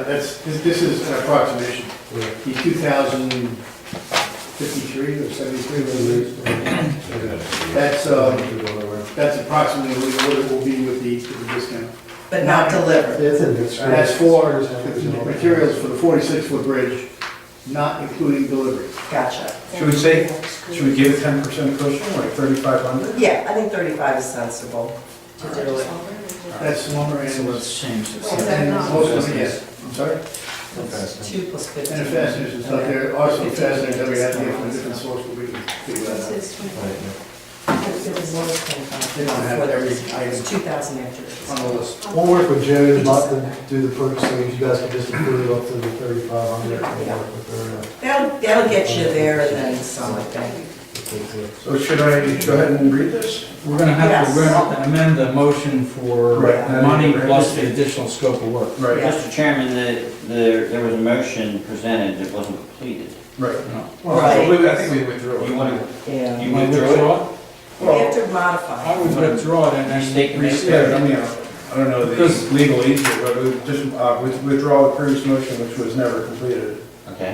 that's, this this is an approximation. Right. The 2053 or 73, whatever it is, Mm-hmm. that's, um, that's approximately what it will be with the, with the discount. but not delivered. It's in this. That's for materials for the 46-foot bridge, not including delivery. Gotcha. Should we say, should we give a ten percent cushion, like thirty-five hundred? Yeah, I think 35 is sensible to do it. That's lumber So and, let's change this. Well, is that and uh, not- most of it, yes, I'm sorry? It's Two plus fifteen. And the fasteners and stuff, there are some fasteners that we have to get from a different source, but we can figure that out. It was lower than 25. They don't have every item. It's 2,000 after this. On the list. We'll work with Joe and let them do the purchasing, if you guys can just approve it up to the thirty-five hundred, we'll work with uh, That'll, that'll get you there and then some, I think. their, uh, So should I go ahead and read this? We're gonna have to, Yes. we're gonna have to amend the motion for Right. money plus the additional scope of work. Right, Yeah. Mr. Chairman, the, the, there was a motion presented that wasn't completed. right. No. Right. Well, we- I think we withdrew. it. You want Yeah. You withdraw it? We have to modify. I would withdraw it and Restate then the Yeah, I restate mean, it. I don't know Because- the legal issue, but we just uh, with- withdraw the previous motion, which was never completed. to, okay?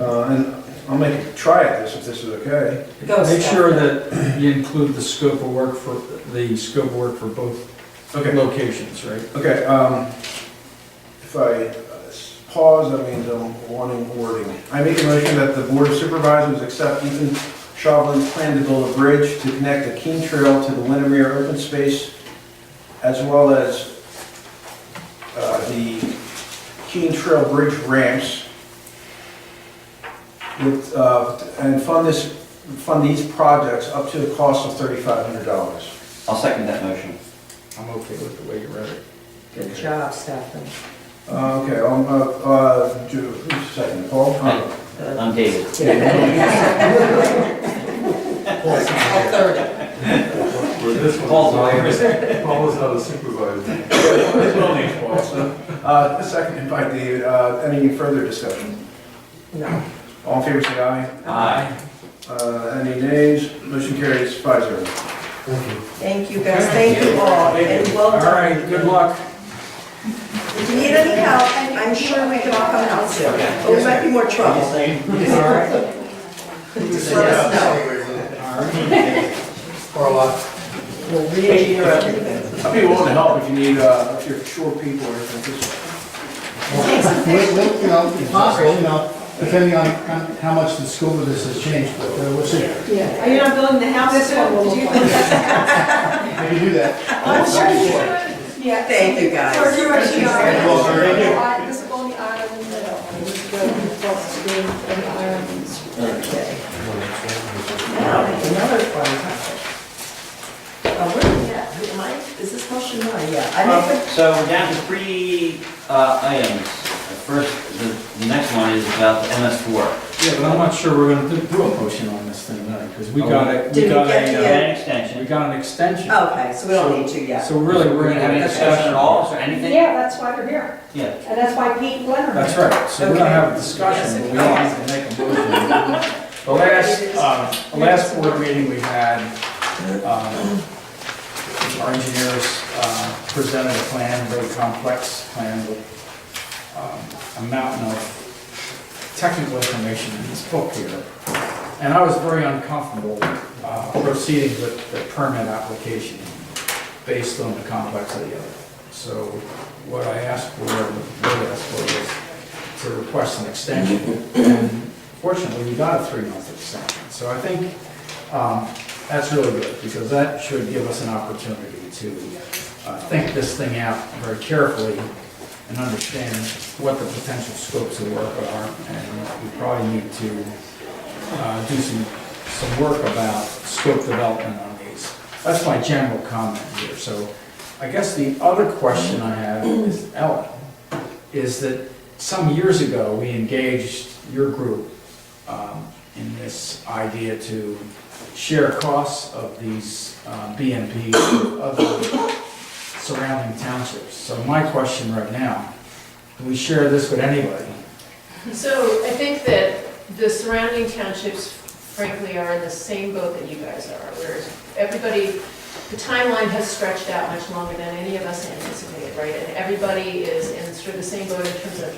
Uh, And I'll make a try at this if this is okay. Go, Make Scott. sure that you include the scope of work for, the scope of work for both locations, right? Okay, um, if I uh, s- pause, that means I'm wanting wording. I make a motion that the Board of Supervisors accept Ethan Chauvelin's plan to build a bridge to connect the Keene Trail to the Windermere open space, as well as uh, the Keene Trail Bridge ramps. With, uh, and fund this, fund these projects up to a cost of thirty-five hundred dollars. I'll second that motion. I'm okay with the way you read it. Good job, Stefan. Uh, Okay, um, uh, uh, do- who's second, Paul? Aye. I'm David. I'll third it. Paul's lawyer. Uh, second by David, uh, any further discussion? No. All in favor, say aye. Aye. Uh, any nays? Motion carries five zero. Thank you. Thank you, guys. Thank you all, and well All done. right, good luck. If you need any help, I'm sure we can all come out soon. But we might be more trouble. All right. Just let us know. Or a lot. We'll re-engineer everything. I'll be willing to help if you need, uh, if you're short people or anything. Just- Well, well, you know, it's possible, you know, depending on on how much the scope of this has changed, but uh, we'll see. Are you not building the house soon? Do you think I that's- can do that. I'm sure you should. Yeah. Thank you, guys. Or you actually Thank you all very much. are. This is only iron in the middle. This is going to be iron in the Okay. Now, another fun topic. Oh, where, yeah, who am I? Is this motion mine? Yeah. I make So we're down to three, uh, items. First, the, the next one is about the MS four. Yeah, but I'm not sure we're gonna do- do a motion on this thing, because we got it, we Did we got get Oh, a, An uh, we extension. got an extension. a- okay, so we don't need to yet. So really, we're gonna have a discussion at all, is there anything? Yeah, that's why we're here, Yeah. and that's why Pete Leonard. That's right, so we're gonna have a discussion, but we don't Yes, have to make a motion. The last, uh, the last board meeting we had, um, our engineers uh, presented a plan, very complex plan with um, a mountain of technical information in this book here. And I was very uncomfortable uh, proceeding with the permit application based on the complexity of it. So what I asked for, what I asked for was to request an extension. And Fortunately, we got a three-month extension. So I think um, that's really good, because that should give us an opportunity to uh, think this thing out very carefully and understand what the potential scopes of work are. And we probably need to uh, do some, some work about scope development on these. That's my general comment here. So I guess the other question I have is, Ellen, is that some years ago, we engaged your group um, in this idea to share costs of these uh, BMPs with other surrounding townships. So my question right now, do we share this with anybody? So I think that the surrounding townships frankly are in the same boat that you guys are, whereas everybody, the timeline has stretched out much longer than any of us anticipated, right? And everybody is in sort of the same boat in terms of